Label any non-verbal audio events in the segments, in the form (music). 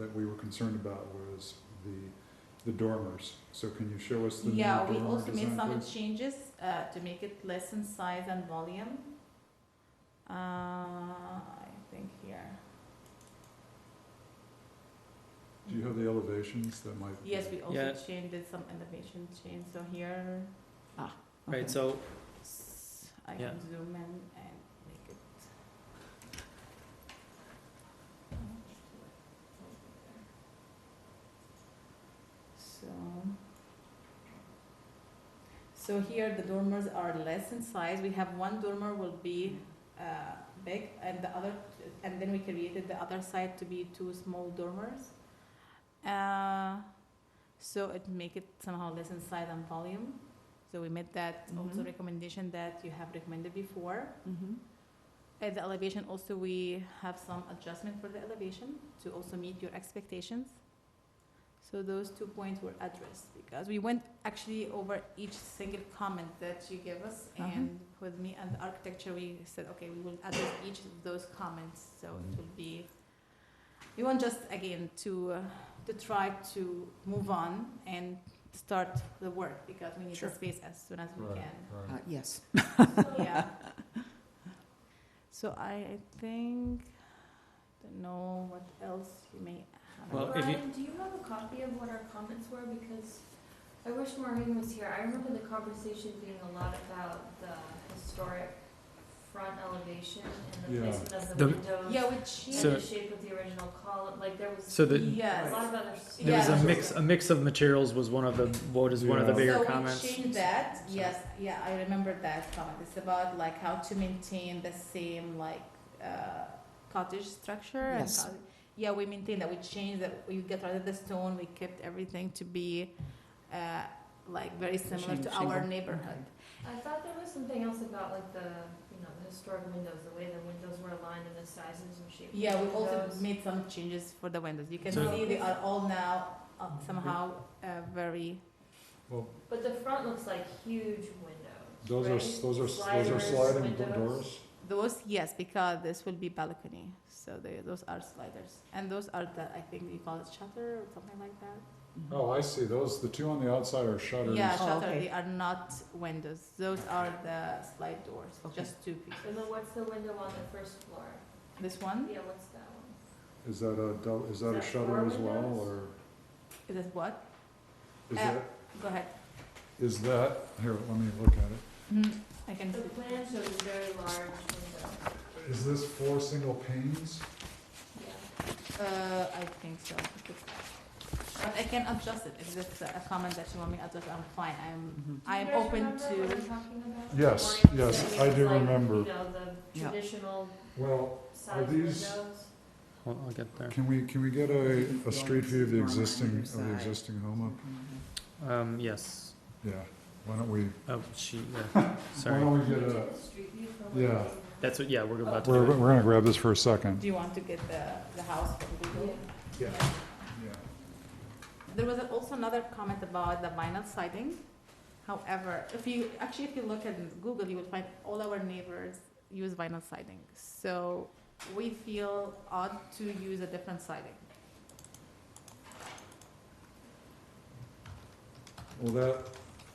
that we were concerned about was the, the dormers. So can you show us the new Yeah, we dormer also made design, some please? changes uh, to make it less in size and volume. Uh, I think here. Do you have the elevations that might? Yes, we also Yeah. changed, did some elevation change, so here. ah, okay. Right, so, S- I Yeah. can zoom in and make it. So. So here the dormers are less in size. We have one dormer will be uh, big and the other, and then we created the other side to be two small dormers. Uh, so it make it somehow less in size and volume. So we made that also Mhm. recommendation that you have recommended before. Mm-hmm. At the elevation also, we have some adjustment for the elevation to also meet your expectations. So those two points were addressed because we went actually over each single comment that you gave us Uh-huh. and with me and the architecture, we said, okay, we will address each of those comments, so it Mhm. will be. We want just again to, uh, to try to move on and start the work because we need Sure. the space as soon as we Right, can. right. Uh, yes. Yeah. (laughs) So I, I think, don't know what else you may have. well, if you, Ryan, do you have a copy of what our comments were? Because I wish Maureen was here. I remember the conversation being a lot about the historic front elevation and the Yeah. placement of The- the windows. Yeah, which And So- the shape of the original column, like there was so the, a lot yes. of other. there was a Yeah. mix, a mix of materials was one of the, what is one of the Yeah. bigger So we comments. changed that, yes, yeah, I remember that comment, it's about like how to maintain the same like, uh, cottage structure and. Yes. cottage- Yeah, we maintain that, we changed that, we get rid of the stone, we kept everything to be, uh, like very similar Shing- to our shingle. neighborhood. I thought there was something else about like the, you know, the historic windows, the way the windows were aligned and the sizes and shape. of Yeah, we the also windows. made some changes for the windows. You can So- see they are all now uh, somehow uh, very. Well, But the front looks like huge windows. those are, s- right? those are, s- those are Sliders, sliding do- windows. doors? Those, yes, because this will be balcony. So they, those are sliders. And those are the, I think you call it shutter or something like that. Mm-hmm. Oh, I see, those, the two on the outside are shutters. Yeah, Oh, shutter. okay. They are not windows. Those are the slide doors, just two And then pieces. what's the window on the first floor? This one Yeah, what's that one? Is that a, dou- is that a that shutter four as well, windows? or is this what? is Uh, that, Go ahead. is that, here, let me look at Mhm, I can. The plan shows a very large window. it. Is this four single panes? Yeah. Uh, I think so. But I can adjust it. If it's a comment that you want me to adjust, I'm fine. I'm Mhm. I'm open Do you guys remember what I'm to, talking about? Yes, Or yes, it's I like, do like, remember. You know, the Yeah. traditional Well, size these- windows. I'll, I'll get there. can we, can we get a, a street view of the Dormer on existing, either of the side. existing home Um, yes, up? Yeah, why don't we, oh, (laughs) she, yeah, why sorry. don't we get a, Is it the street view from Yeah. where they- That's what, yeah, we're about to we're, do it. we're gonna grab this for a second. do you want to get the, the house from Google? Yeah. Yeah. There was also another comment about the vinyl siding. However, if you, actually, if you look at Google, you will find all our neighbors use vinyl siding. So we feel odd to use a different siding. Well, that,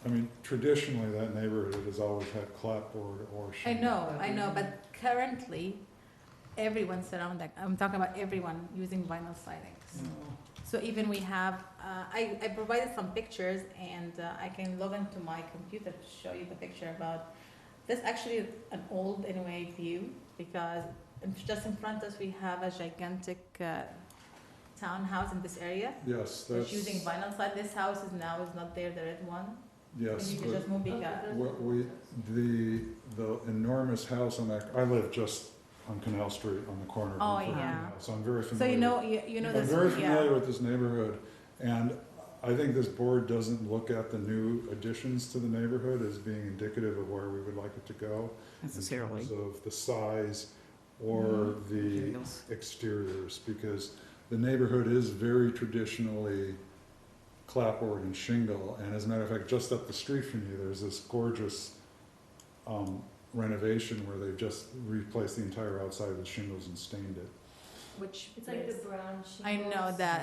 I mean, traditionally, that neighborhood has always had clapboard or I shingle. know, I know, but currently, everyone surrounding, I'm talking about everyone using vinyl siding. So even we have, uh, I, I provided some pictures and uh, I can log into my computer to show you the picture about, this actually is an old anyway view because in- just in front of us, we have a gigantic uh, townhouse in this area. Yes, It's that's, using vinyl side, this house is now is not there, the red one. yes, You can but just move Okay, bigger. those are What the we- windows. the, the enormous house on that, I live just on Canal Street on the corner. of Oh, Lincoln and yeah. Canal, So I'm very familiar. So you know, you you know I'm this, very yeah. familiar with this neighborhood, and I think this board doesn't look at the new additions to the neighborhood as being indicative of where we would like it to go. Necessarily. In terms of the size or Mhm. the Materials. exteriors because the neighborhood is very traditionally clapboard and shingle. And as a matter of fact, just up the street from you, there's this gorgeous um, renovation where they've just replaced the entire outside with shingles and stained it. Which It's like the brown shingles. I know that.